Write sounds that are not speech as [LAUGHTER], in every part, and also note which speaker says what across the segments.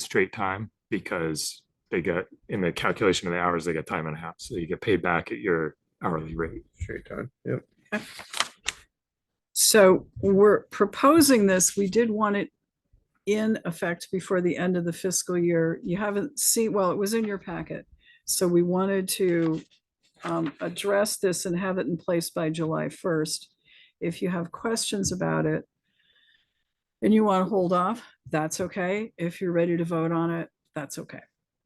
Speaker 1: straight time because they get in the calculation of the hours, they get time and a half. So you get paid back at your hourly rate.
Speaker 2: Straight time, yep.
Speaker 3: So we're proposing this. We did want it in effect before the end of the fiscal year. You haven't seen, well, it was in your packet. So we wanted to um, address this and have it in place by July first. If you have questions about it and you want to hold off, that's okay. If you're ready to vote on it, that's okay.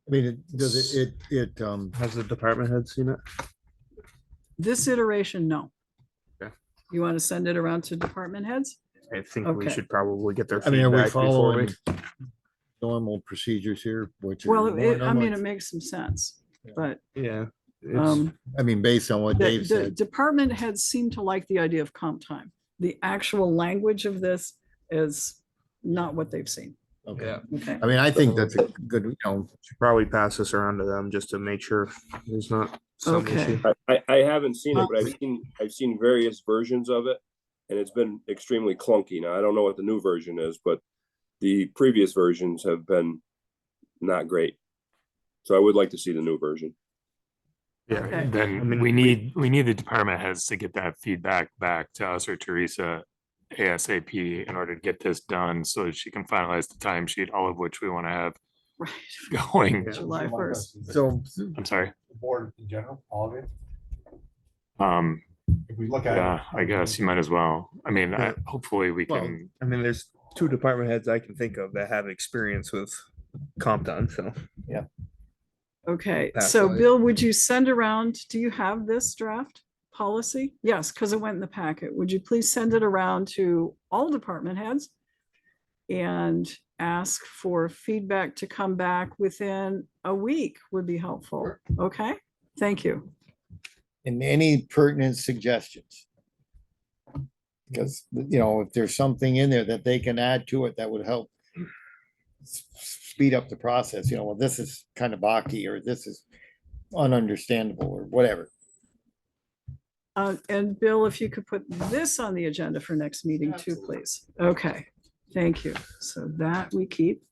Speaker 4: I mean, it does it, it, it, um,
Speaker 2: Has the department head seen it?
Speaker 3: This iteration, no.
Speaker 2: Okay.
Speaker 3: You want to send it around to department heads?
Speaker 2: I think
Speaker 3: we
Speaker 2: we
Speaker 3: Okay. should
Speaker 2: should probably get their
Speaker 4: I mean, are we
Speaker 2: feedback before
Speaker 4: following normal procedures here, which? are
Speaker 3: Well,
Speaker 4: more
Speaker 3: it- I mean, it
Speaker 4: normal?
Speaker 3: makes some sense,
Speaker 4: Yeah.
Speaker 3: but
Speaker 2: Yeah.
Speaker 3: um.
Speaker 4: I mean, based on what
Speaker 3: The,
Speaker 4: Dave
Speaker 3: the
Speaker 4: said,
Speaker 3: department heads seem to like the idea of comp time. The actual language of this is not what they've seen.
Speaker 4: okay,
Speaker 2: Yeah,
Speaker 3: Okay.
Speaker 4: I mean, I think that's a good, you know,
Speaker 2: should probably pass this around to them just to make sure there's not some
Speaker 3: Okay.
Speaker 2: issue.
Speaker 5: I, I, I haven't seen it, but I've seen, I've seen various versions of it, and it's been extremely clunky. Now, I don't know what the new version is, but the previous versions have been not great. So I would like to see the new version.
Speaker 2: Yeah,
Speaker 3: Okay.
Speaker 2: I
Speaker 1: Then we
Speaker 2: mean, we-
Speaker 1: need, we need the department heads to get that feedback back to us or Teresa ASAP in order to get this done so that she can finalize the timesheet, all of which we want to have [LAUGHS]
Speaker 3: Right.
Speaker 1: going.
Speaker 2: Yeah.
Speaker 3: July first.
Speaker 4: so,
Speaker 1: I'm sorry.
Speaker 6: the board in general, all of it,
Speaker 1: Um,
Speaker 6: if we look at. it-
Speaker 1: yeah, I guess you might as well. I mean, I-
Speaker 2: Yeah.
Speaker 1: hopefully we
Speaker 4: Well,
Speaker 1: can,
Speaker 2: I mean, there's two department heads I can think of that have experience with comp time, so.
Speaker 3: Okay,
Speaker 2: That's
Speaker 3: so
Speaker 2: why-
Speaker 3: Bill, would you send around, do you have this draft policy? Yes, because it went in the packet. Would you please send it around to all department heads? And ask for feedback to come back within a week would be helpful. Okay, thank you.
Speaker 4: and any pertinent suggestions. Because, you know, if there's something in there that they can add to it that would help s- speed up the process, you know, well, this is kind of bocky, or this is ununderstandable, or whatever.
Speaker 3: Uh, and Bill, if you could put this on the agenda for next meeting too, please. Okay, thank you. So that we keep.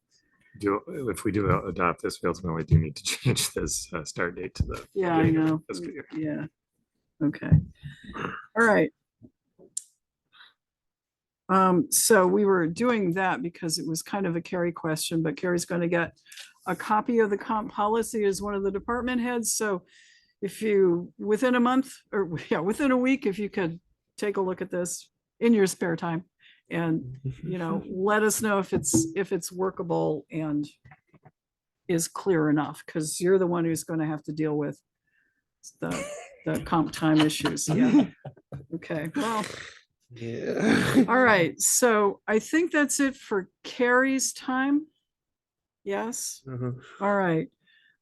Speaker 1: do, if we do adopt this, we ultimately do need to [LAUGHS] change this uh, start date to the.
Speaker 3: Yeah, I
Speaker 1: beginning of the
Speaker 3: know.
Speaker 1: fiscal year.
Speaker 3: Yeah. Okay. All right. Um, so we were doing that because it was kind of a Carrie question, but Carrie's going to get a copy of the comp policy as one of the department heads. So if you, within a month or [LAUGHS] yeah, within a week, if you could take a look at this in your spare time and you know, let us know if it's, if it's workable and is clear enough, because you're the one who's gonna have to deal with the, the comp time issues, yeah. Okay, well,
Speaker 4: [LAUGHS]
Speaker 2: Yeah. [LAUGHS]
Speaker 3: all right, so I think that's it for Carrie's time. Yes,
Speaker 2: Mhm.
Speaker 3: all right.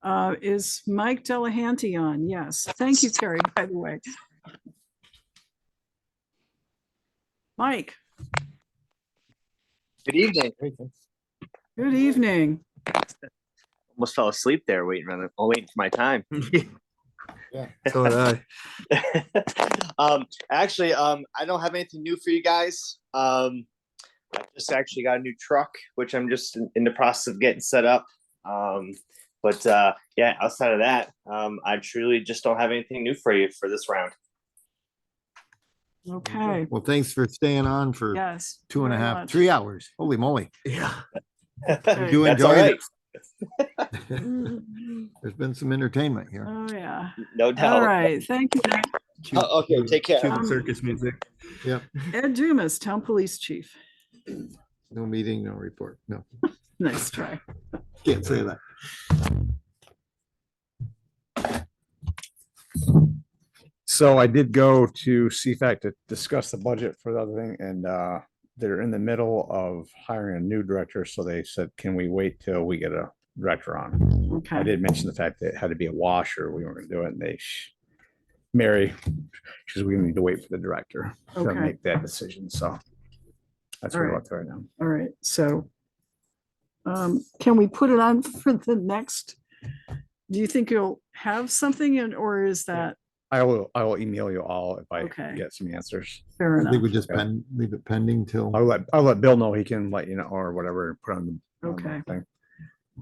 Speaker 3: Uh, is Mike Delahanty on? Yes, thank you, Carrie, by the way. Mike,
Speaker 7: Good evening.
Speaker 3: good evening.
Speaker 7: Almost fell asleep there waiting for the, oh, waiting for my time. [LAUGHS]
Speaker 2: So did I.
Speaker 7: um, actually, um, I don't have anything new for you guys. Um, I just actually got a new truck, which I'm just in, in the process of getting set up. Um, but uh, yeah, outside of that, um, I truly just don't have anything new for you for this round.
Speaker 3: Okay,
Speaker 4: Well, thanks for staying on for
Speaker 3: yes.
Speaker 4: two and a
Speaker 3: very
Speaker 4: half, [LAUGHS]
Speaker 3: much.
Speaker 4: three hours. Holy moly.
Speaker 2: Yeah.
Speaker 3: Okay.
Speaker 4: do
Speaker 7: That's all
Speaker 4: enjoy it.
Speaker 7: right.
Speaker 4: There's been some entertainment here.
Speaker 3: Mm-hmm. Oh, yeah.
Speaker 7: No doubt.
Speaker 3: All right. Thank you. Nick.
Speaker 4: Uh,
Speaker 7: Oh, okay, take care.
Speaker 2: Cuban
Speaker 3: Um,
Speaker 2: circus music.
Speaker 3: Ed Dumas, Town Police Chief.
Speaker 4: No meeting, no report. No,
Speaker 3: Nice try.
Speaker 4: can't say that.
Speaker 8: So I did go to CFAC to discuss the budget for the other thing and uh, they're in the middle of hiring a new director. So they said, can we wait till we get a director on? I
Speaker 3: Okay.
Speaker 8: did mention the fact that it had to be a washer. We weren't gonna do it and they sh- Mary, because we need to wait for the director to
Speaker 3: Okay.
Speaker 8: make that decision. So that's where we're
Speaker 3: Alright.
Speaker 8: at right now.
Speaker 3: All right. So um, can we put it on for the next? Do you think you'll have something in, or is that
Speaker 8: I will, I will email you all if I
Speaker 3: Okay.
Speaker 8: get some answers.
Speaker 3: fair
Speaker 4: I think
Speaker 3: enough?
Speaker 4: we just pen, leave it pending till.
Speaker 8: I'll let, I'll let Bill know he can let you know or whatever, put on the. on the
Speaker 3: Okay.
Speaker 8: thing.